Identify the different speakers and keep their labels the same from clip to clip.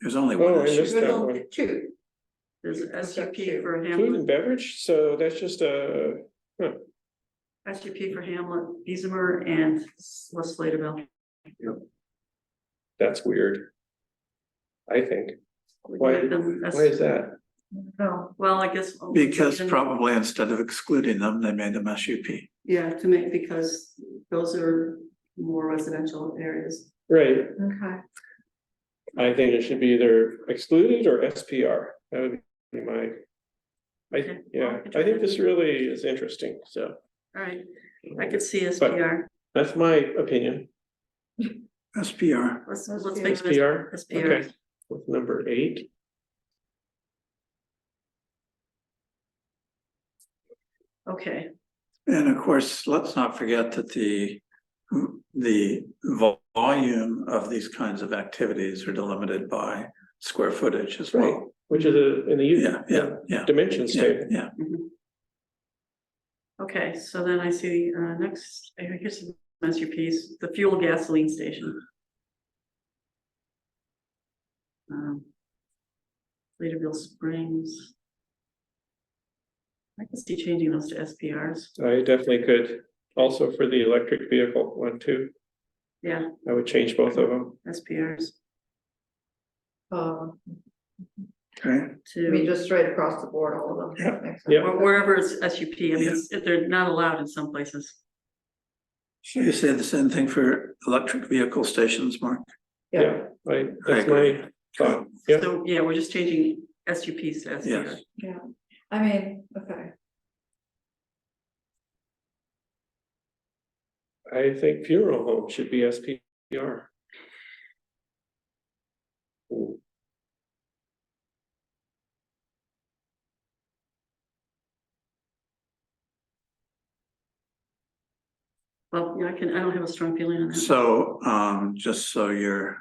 Speaker 1: There's only
Speaker 2: Oh,
Speaker 1: one
Speaker 2: I missed
Speaker 1: issue.
Speaker 2: that
Speaker 1: though.
Speaker 2: one.
Speaker 3: Well, Two. There's a
Speaker 2: What's
Speaker 3: S U
Speaker 2: that
Speaker 3: P
Speaker 2: two?
Speaker 3: for
Speaker 2: Food and
Speaker 3: Hamlet,
Speaker 2: beverage, so that's just a,
Speaker 3: S U P for Hamlet, Beesimer and West Sladeville.
Speaker 2: that's weird. I think, Why- why is that?
Speaker 3: Oh, well, I guess. well,
Speaker 1: Because
Speaker 3: and-
Speaker 1: probably instead of excluding them, they made them SUP.
Speaker 3: Yeah, to make, because those are more residential areas.
Speaker 2: Right,
Speaker 3: Okay.
Speaker 2: I think it should be either excluded or SPR, that would be my. I,
Speaker 3: Okay.
Speaker 2: yeah, I think this really is interesting, so
Speaker 3: All right, I could see S P R.
Speaker 2: that's my opinion,
Speaker 1: SPR.
Speaker 3: Let's, let's make it
Speaker 2: SPR,
Speaker 3: S P R.
Speaker 2: okay, with number eight.
Speaker 3: Okay,
Speaker 1: And of course, let's not forget that the, the vol- volume of these kinds of activities are delimited by square footage as
Speaker 2: Right,
Speaker 1: well.
Speaker 2: which is a, in the. U-
Speaker 1: Yeah, yeah, yeah,
Speaker 2: Dimensions
Speaker 1: yeah,
Speaker 2: table,
Speaker 1: yeah.
Speaker 3: Mm-hmm. okay, so then I see, uh, next, I think here's some masterpiece, the fuel gasoline station. Um, Sladeville Springs. I can see changing those to SPRs,
Speaker 2: I definitely could, also for the electric vehicle one too,
Speaker 3: yeah,
Speaker 2: I would change both of them.
Speaker 3: SPRs
Speaker 4: Uh,
Speaker 1: Okay,
Speaker 4: I mean,
Speaker 3: to,
Speaker 4: just straight across the board, all of them. Makes sense.
Speaker 2: Yeah.
Speaker 3: or wherever it's S U P, I mean, it's- they're not allowed in some places.
Speaker 1: so you say the same thing for electric vehicle stations, Mark?
Speaker 4: Yeah,
Speaker 2: Yeah, I,
Speaker 1: I
Speaker 2: that's
Speaker 1: agree.
Speaker 2: my thought, yeah.
Speaker 3: So, yeah, we're just changing S U Ps to S P R.
Speaker 1: Yes.
Speaker 4: yeah, I mean, okay,
Speaker 2: I think funeral home should be SPR. Ooh,
Speaker 3: Well, yeah, I can, I don't have a strong feeling on that.
Speaker 1: So, um, just so you're,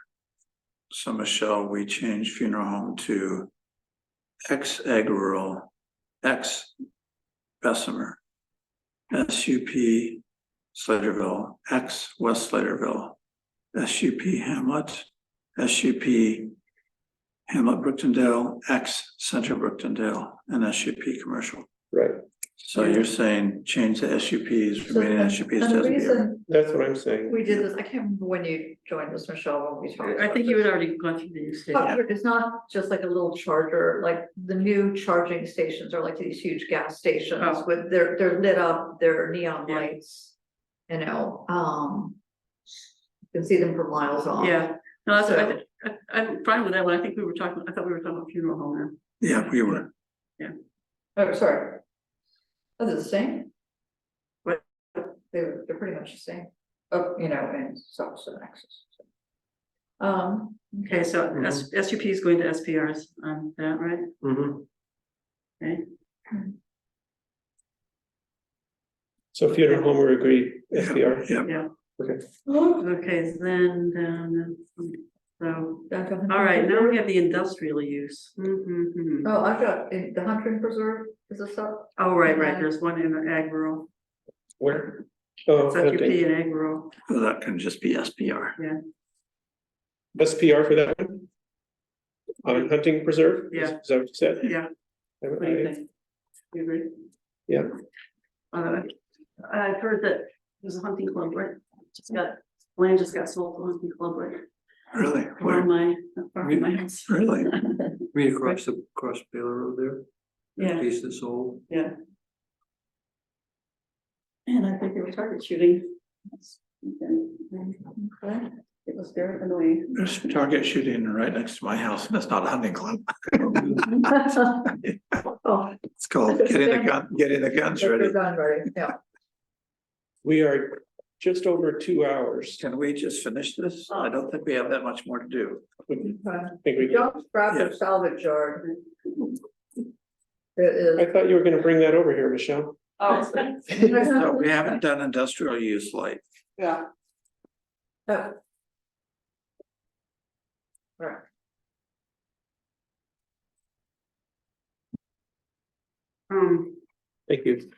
Speaker 1: so Michelle, we change funeral home to ex egg rural, ex Bessemer, SUP Sladeville, ex West Sladeville, SUP Hamlet, SUP Hamlet Brooktondale, ex Central Brooktondale, and SUP Commercial.
Speaker 2: Right,
Speaker 1: So you're saying change the SUPs,
Speaker 4: So
Speaker 1: remaining SUPs
Speaker 4: and the
Speaker 1: to
Speaker 4: reason
Speaker 2: that's what I'm saying,
Speaker 4: we did this, I can't remember when you joined us, Michelle, when we talked.
Speaker 3: I
Speaker 4: about
Speaker 3: think
Speaker 4: this.
Speaker 3: you had already gone through the use case.
Speaker 4: But It's not just like a little charger, like the new charging stations are like these huge gas stations
Speaker 3: Oh.
Speaker 4: with, they're, they're lit up, they're neon
Speaker 3: Yeah.
Speaker 4: lights. You know, um. You can see them for miles off.
Speaker 3: Yeah, no, that's, I,
Speaker 4: So-
Speaker 3: thi- I- I'm fine with that one. I think we were talking, I thought we were talking about funeral home now.
Speaker 1: Yeah, we were.
Speaker 4: Oh, sorry. Oh, they're the same?
Speaker 3: What?
Speaker 4: They're, they're pretty much the same, oh, you know, and stops and access. Um,
Speaker 3: Okay, so S, SUP is going to SPRs on that, right?
Speaker 2: Mhm.
Speaker 3: Okay,
Speaker 2: so funeral home, we agree, SPR,
Speaker 1: Yeah.
Speaker 3: yeah,
Speaker 4: oh,
Speaker 3: okay, then, down. so,
Speaker 4: I've got-
Speaker 3: all right, now we have the industrial use. Mhm, mhm.
Speaker 4: Oh, I've got, eh, the Hunter Preserve is a sub,
Speaker 3: Oh, right, right, there's one in ag rural,
Speaker 2: where? Oh,
Speaker 3: it's SUP
Speaker 2: hunting.
Speaker 3: in ag rural,
Speaker 1: So Oh, That can just be SPR.
Speaker 2: SPR for that one? On hunting preserve? Is-
Speaker 3: Yeah.
Speaker 2: Is that what you said?
Speaker 3: yeah.
Speaker 2: I-
Speaker 3: What do you
Speaker 2: I-
Speaker 3: think? You agree?
Speaker 2: Yeah.
Speaker 3: Uh, I've heard that there's a hunting club, right? Just got, land just got sold to a hunting club, right?
Speaker 1: Really?
Speaker 3: Around my, around my house.
Speaker 1: Really?
Speaker 5: Read across the, across Baylor Road there, that
Speaker 3: Yeah,
Speaker 5: piece that's old,
Speaker 3: yeah. And I think they were target shooting. Okay. It was very annoying.
Speaker 1: There's target shooting right next to my house and it's not a hunting club.
Speaker 4: oh,
Speaker 1: It's called getting the gun, getting the guns
Speaker 4: they're
Speaker 1: ready.
Speaker 4: done, right, yeah.
Speaker 2: We are just over two hours.
Speaker 1: Can we just finish this? I don't think we have that much more to do.
Speaker 2: Think
Speaker 4: Okay.
Speaker 2: we can-
Speaker 4: Don't scrap the salvage yard. It is.
Speaker 2: I thought you were gonna bring that over here, Michelle.
Speaker 3: Oh.
Speaker 1: So we haven't done industrial use light.
Speaker 4: Yeah. Oh. Right.
Speaker 3: Um,
Speaker 2: Thank you.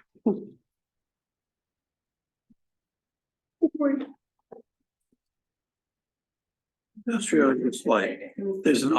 Speaker 1: Industrial use light. There's an